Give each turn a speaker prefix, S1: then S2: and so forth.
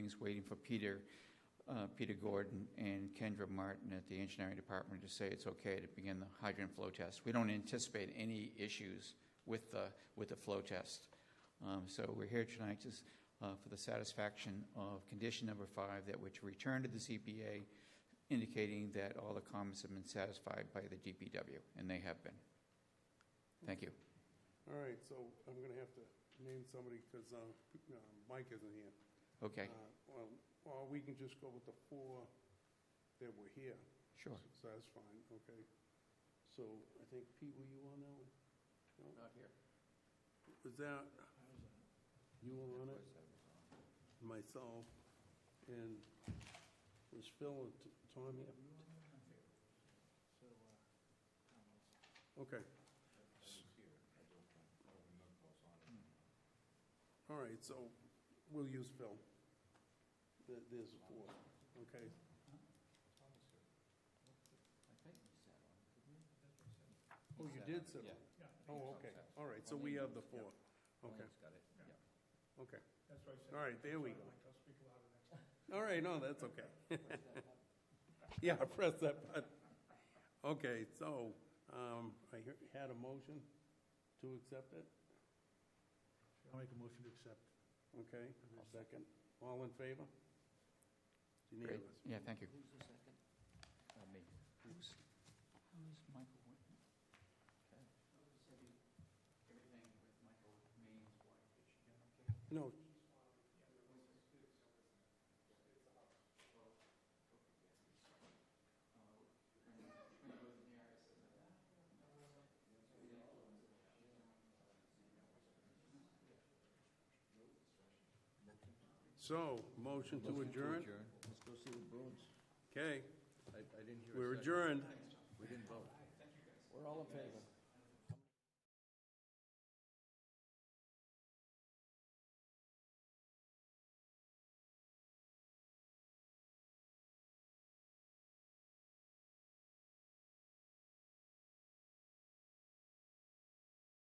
S1: meetings waiting for Peter, uh, Peter Gordon and Kendra Martin at the engineering department to say it's okay to begin the hydrant flow test. We don't anticipate any issues with the, with the flow test. Um, So we're here tonight to s- uh, for the satisfaction of condition number five, that which returned to the ZBA, indicating that all the comments have been satisfied by the DPW, and they have been. Thank you.
S2: All right, so I'm going to have to name somebody because Mike isn't here.
S1: Okay,
S2: Uh, Well, or we can just go with the four that were here.
S1: sure.
S2: So that's fine, okay. So I think, Pete, were you on that one?
S1: Not here.
S2: Was that, you were on it? Myself, and was Phil and T- Tom here? Okay. All right, so we'll use Phil. There- There's four, okay? Oh, you did sit on it? Oh, okay, all right, so we have the four, okay. Okay. All right, there we go. All right, no, that's okay. Yeah, press that button. Okay, so, um, I hear- had a motion to accept it,
S3: I'll make a motion to accept.
S2: okay? I'll Second, all in favor? It's
S1: Great,
S2: Unanimous.
S1: yeah, thank you. Uh,
S4: Who's the second?
S1: Me. Who's, who's Michael Whitman? Everything with Michael Maine's wife, did she get okay?
S2: No, so, motion to adjourn,
S4: Let's go see the Bruins.
S2: okay,
S4: I, I didn't hear. a
S2: we're
S4: second.
S2: adjourned.
S4: We didn't vote. We're all in favor.